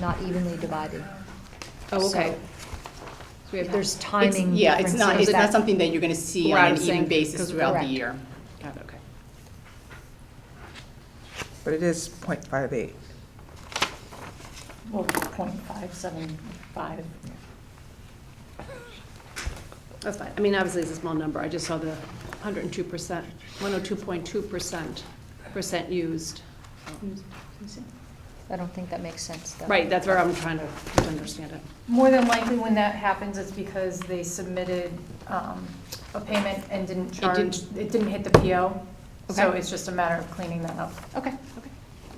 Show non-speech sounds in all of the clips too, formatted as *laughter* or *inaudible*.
not evenly divided. Oh, okay. So So we have- There's it's- timing Yeah, it's not, differences it's not that- something that you're gonna see on an even Rousing, basis throughout the correct. year. Got it, okay. But it is point five eight. Well, point five seven five. That's fine. I mean, obviously, it's a small number. I just saw the 102%, 102.2% percent used. I don't think that makes sense, though. Right, that's where I'm trying to understand it. More than likely, when that happens, it's because they submitted um, a payment and didn't charge, didn't- it didn't hit the PO. So Okay. it's just a matter of cleaning that up, Okay, okay,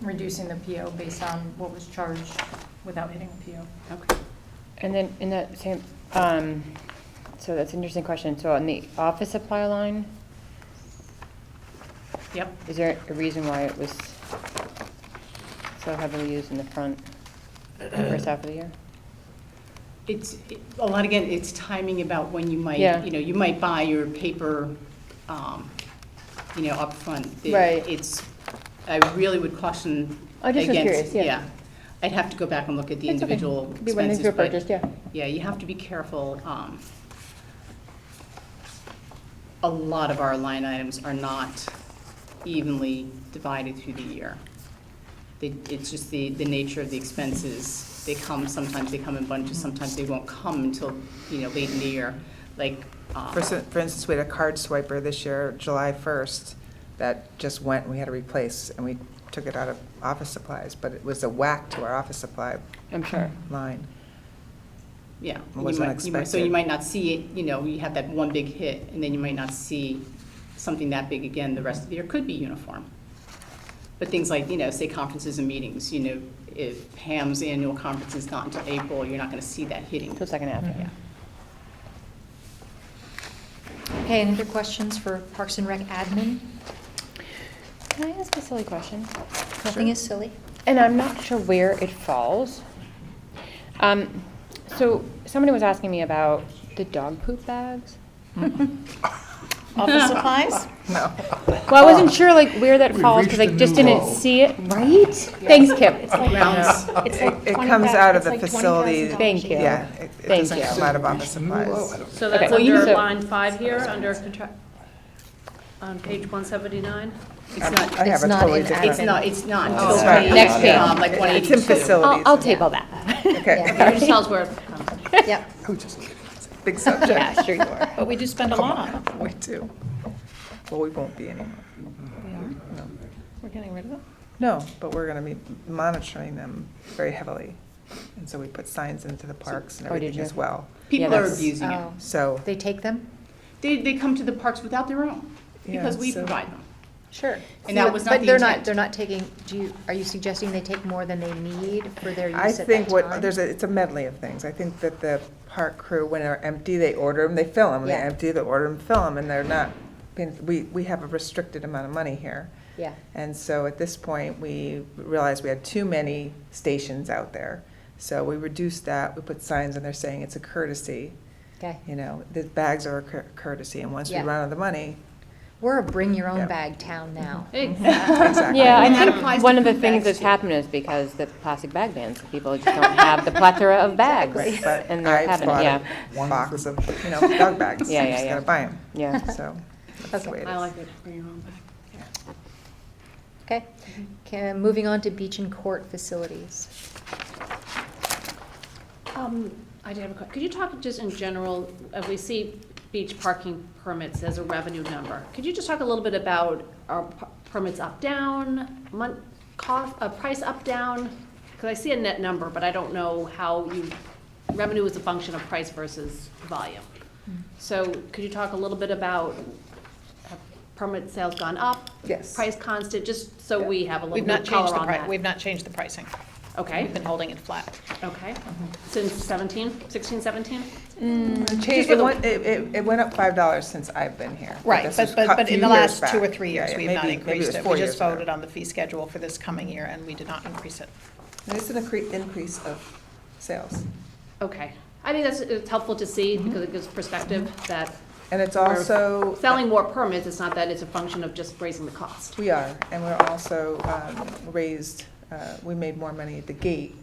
reducing the PO based on what was charged without hitting the PO. okay. And then in that same, um, so that's an interesting question. So on the office supply line, Yep. is there a reason why it was so heavily used in the front, first half of the year? It's, it- a lot, again, it's timing about when you might, Yeah. you know, you might buy your paper, um, you know, upfront. It- Right. It's, I really would caution I just was against, curious, yeah. yeah. I'd have to go back and look at the It's okay. individual Be when these expenses, were but, purchased, yeah. yeah, you have to be careful. um, A lot of our line items are not evenly divided through the year. They- It's just the, the nature of the expenses. They come, sometimes they come in bunches, sometimes they won't come until, you know, late in the year, like. uh, For s- for instance, we had a card swiper this year, July first, that just went, and we had to replace, and we took it out of office supplies, but it was a whack to our office supply I'm sure. line. Yeah. you wasn't might- you might- So you expected. might not see it, you know, you have that one big hit, and then you might not see something that big again the rest of the year. Could be uniform. But things like, you know, say conferences and meetings, you know, if Pam's annual conference is not until April, you're not going to see that hitting. So second half, yeah. Mm-hmm. Okay, any other questions for Parks and Rec admin? Can I ask a silly question? Nothing is silly. And I'm not sure where it falls. Um, so somebody was asking me about the dog poop *laughs* bags. Office supplies? No. Well, I wasn't sure like where that We've falls because I reached a just new didn't low. see it. Right? Thanks, Kip. Rounds. It's It- like It 20 comes thou- out of it's the like facility. $20,000 Thank a you. year. Yeah, it- it Thank doesn't you. come out of office Reached a new low. I supplies. don't- So Okay. that's Well, you under said- line five here, under contra- on page 179? It's not, I have It's a not totally in different. it's not, it's not until It's not. we, Oh, Next page. um, like It's in 182. I'll, facilities. I'll table that. *laughs* Okay, *laughs* Oh, Yeah. It just tells where it comes from. Yep. I was just looking. big subject, sure you are. *laughs* But we do spend a lot on it. we do. Well, we won't be anymore. No. We're getting rid of it? No, but we're gonna be monitoring them very heavily. And so we put signs into the parks and Oh, did everything as you? well. People Yeah, are that's- abusing oh. it. So, They take them? They, they come to the parks without their own, because Yeah, we so- provide them. Sure. And that was not the But they're not, intent. they're not taking, do you, are you suggesting they take more than they need for their use I at that think what, time? there's, a it's a medley of things. I think that the park crew, when they're empty, they order them, they fill them. When they're Yeah. empty, they order them, fill them, and they're not, being- we, we have a restricted amount of money here. Yeah. And so at this point, we realized we had too many stations out there. So we reduced that, we put signs in there saying it's a courtesy, Okay. you know, the bags are a cour- courtesy, and once we Yeah. run out of the *laughs* money, We're a bring your Yeah. own bag town now. exactly. Yeah, I And that think applies one to of the food things bags, that's too. happened is because the plastic bag bans, people just don't have the plethora *laughs* of bags Right, *laughs* But in their I cabinet, bought yeah. a box of, you know, dog bags. Yeah, I'm yeah, just yeah. gonna buy them. Yeah. So that's the way it I is. like it, bring your own back. Okay. Okay, moving on to beach and court facilities. Um, I did have a question. Could you talk just in general, uh, we see beach parking permits as a revenue number. Could you just talk a little bit about our permits up, down, month, cost, uh, price up, down? Because I see a net number, but I don't know how you, revenue is a function of price versus volume. Mm. So could you talk a little bit about, have permit sales gone up? Yes. Price constant, just so Yeah. we have a little We've bit not of changed color the on price, that. we've not changed the pricing. Okay, We've been holding it flat. okay. Mm-hmm. Since seventeen, sixteen, seventeen? It changed- Mm. just for It the- went, it, it- it went up five dollars since I've been here. Right, this but, was but, cut but few in the years last two or back. three Yeah, years, yeah, we've maybe- not maybe increased was it. four We just years back. voted on the fee schedule for this coming year, and we did not increase it. It's an incre- increase of sales. Okay. I think that's, it's helpful to see because it gives perspective that And it's Or also. selling more permits, it's not that it's a function of just raising the cost. We are, and we're also um, raised, uh, we made more money at the gate